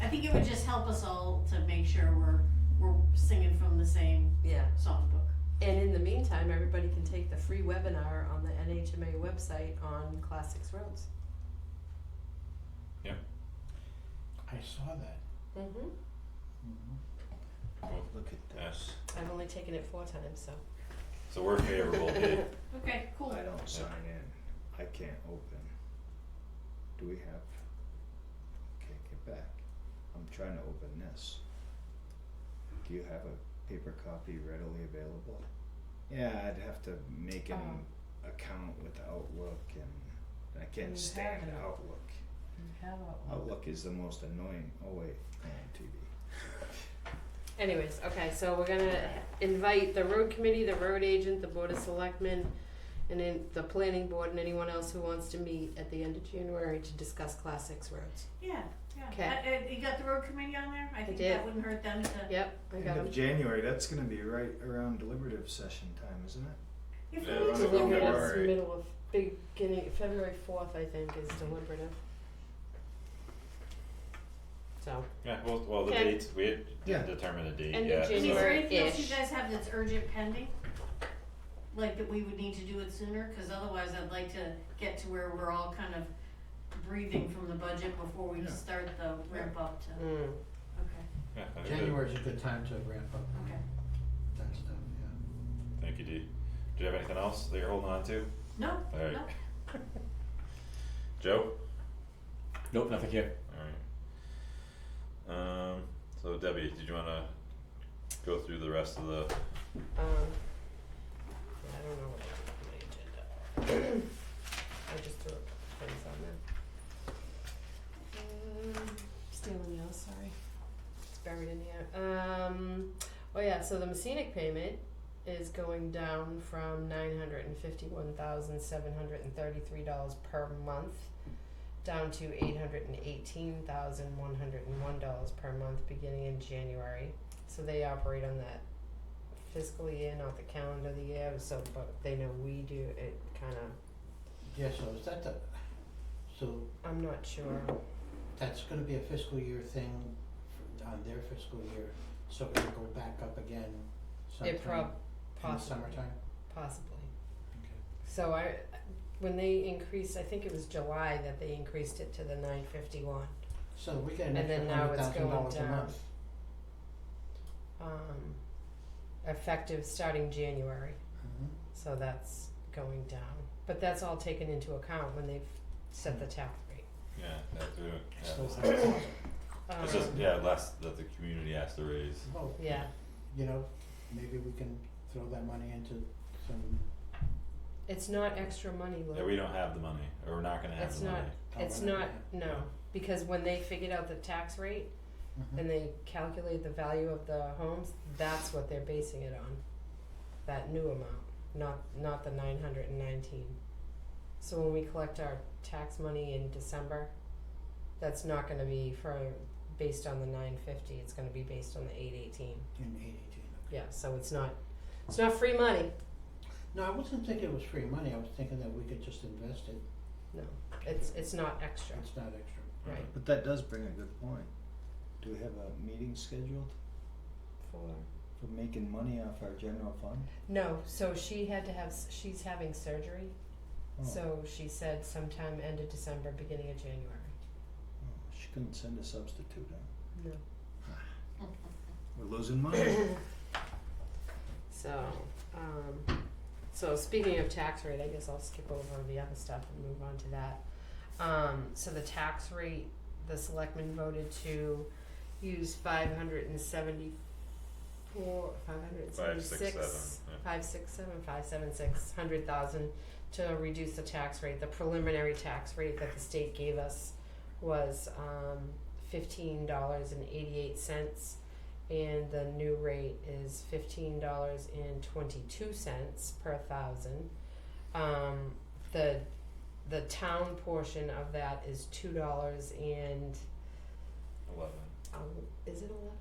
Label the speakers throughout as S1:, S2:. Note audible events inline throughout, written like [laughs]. S1: I think it would just help us all to make sure we're, we're singing from the same
S2: Yeah.
S1: songbook.
S2: And in the meantime, everybody can take the free webinar on the NHMA website on classics roads.
S3: I saw that.
S2: Mm-hmm.
S4: Well,
S3: Look at that.
S4: yes.
S2: I've only taken it four times, so.
S4: So we're favorable,
S2: [laughs]
S4: Dave.
S1: Okay, cool.
S3: I don't sign in. I can't open. Do we have? Okay, get back. I'm trying to open this. Do you have a paper copy readily available? Yeah, I'd have to make an account with Outlook and I
S5: You
S3: can't stand
S5: have an-
S3: Outlook.
S5: How about one?
S3: Outlook is the most annoying. Oh wait, I'm on TV.
S2: Anyways, okay, so we're gonna invite the road committee, the road agent, the board of selectmen, and then the planning board and anyone else who wants to meet at the end of January to discuss classics roads.
S1: Yeah, yeah.
S2: Okay.
S1: I- I- you got the road committee on there? I think
S2: did.
S1: that wouldn't hurt them to,
S2: Yep, I got
S3: End of
S2: them.
S3: January, that's gonna be right around deliberative session time, isn't it?
S1: if
S4: Yeah,
S1: we need
S4: road
S1: to
S4: committee.
S1: look at
S4: February.
S2: It's middle of, beginning, February fourth, I think, is deliberative. So,
S4: Yeah, well, well, the
S2: Okay.
S4: dates, we had
S3: Yeah.
S4: determined a date,
S2: End of
S4: yeah,
S1: Is there
S4: so,
S2: January.
S1: anything else you
S2: January-ish.
S1: guys have that's urgent pending? Like that we would need to do it sooner, cause otherwise I'd like to get to where we're all kind of breathing from the budget before we
S3: Yeah.
S1: start the ramp up to,
S2: mm,
S1: okay,
S4: yeah, I think that-
S6: January's a good time to ramp up
S1: okay.
S6: that stuff, yeah.
S4: thank you, Dee. Do you have anything else that you're holding on to?
S1: No,
S4: Alright.
S1: no,
S4: Joe?
S7: Nope, nothing here.
S4: Alright. Um, so Debbie, did you wanna go through the rest of the,
S2: um, yeah, I don't know what I did with my agenda. [clears throat] I just threw things on there. Um, stealing yours, sorry. It's buried in here. Um, oh yeah, so the Messinic payment is going down from nine hundred and fifty-one thousand seven hundred and thirty-three dollars per month down to eight hundred and eighteen thousand one hundred and one dollars per month beginning in January. So they operate on that fiscal year, not the calendar of the year, so but they know we do it kinda
S6: Yeah, so is that the, so
S2: I'm not sure.
S6: that's gonna be a fiscal year thing f- on their fiscal year, so it will go back up again
S2: It prob-
S6: sometime in the
S2: possibly.
S6: summertime?
S2: Possibly. So I, when they increased, I think it was July that they increased it to the nine fifty one.
S6: So we get an
S2: And
S6: extra
S2: then now
S6: hundred
S2: it's
S6: thousand
S2: going
S6: dollars a
S2: down.
S6: month.
S2: Um, effective starting January,
S6: Mhm.
S4: Mm-hmm.
S2: so that's going down. But that's all taken into account when they've set the tax rate.
S4: yeah, that's, yeah,
S6: So
S4: it's-
S6: that's awesome.
S4: it's
S2: Um,
S4: just, yeah, last, that the community asked to raise,
S6: Well,
S2: Yeah,
S6: you know, maybe we can throw that money into some,
S2: it's not extra money, Lou.
S4: yeah, we don't have the money, or we're not gonna have
S2: It's
S4: the money.
S2: not- It's
S6: Oh,
S2: not,
S6: yeah.
S2: no, because when they figured out the tax rate
S6: Mhm.
S2: and they calculate the value of the homes, that's what they're basing it on. That new amount, not not the nine hundred and nineteen. So when we collect our tax money in December, that's not gonna be for, based on the nine fifty, it's gonna be based on the eight eighteen.
S6: in eight eighteen.
S2: Yeah, so it's not, it's not free money,
S6: No, I wasn't thinking it was free money, I was thinking that we could just invest it,
S2: no, it's it's not extra,
S6: it's not extra.
S2: right,
S3: But that does bring a good point. Do we have a meeting scheduled
S2: for.
S3: for making money off our general fund?
S2: No, so she had to have, s- she's having surgery,
S3: Oh,
S2: so she said sometime end of December, beginning of January.
S3: oh, She couldn't send a substitute, huh?
S2: No.
S3: We're losing money.
S2: So, um, so speaking of tax rate, I guess I'll skip over the other stuff and move on to that. Um, so the tax rate, the selectmen voted to use five hundred and seventy-four, five hundred and
S4: Five,
S2: seventy-six.
S4: six, seven, yeah.
S2: five six seven, five seven six, hundred thousand to reduce the tax rate. The preliminary tax rate that the state gave us was um fifteen dollars and eighty-eight cents. And the new rate is fifteen dollars and twenty-two cents per thousand. Um, the, the town portion of that is two dollars and,
S4: Eleven.
S2: um, is it eleven?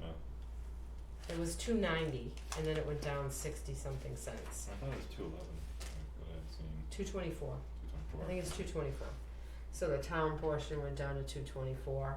S4: Yeah.
S2: It was two ninety, and then it went down sixty something cents,
S4: I thought it was two eleven, what I've seen,
S2: two twenty-four.
S4: two twenty-four.
S2: I think it's two twenty-four. So the town portion went down to two twenty-four.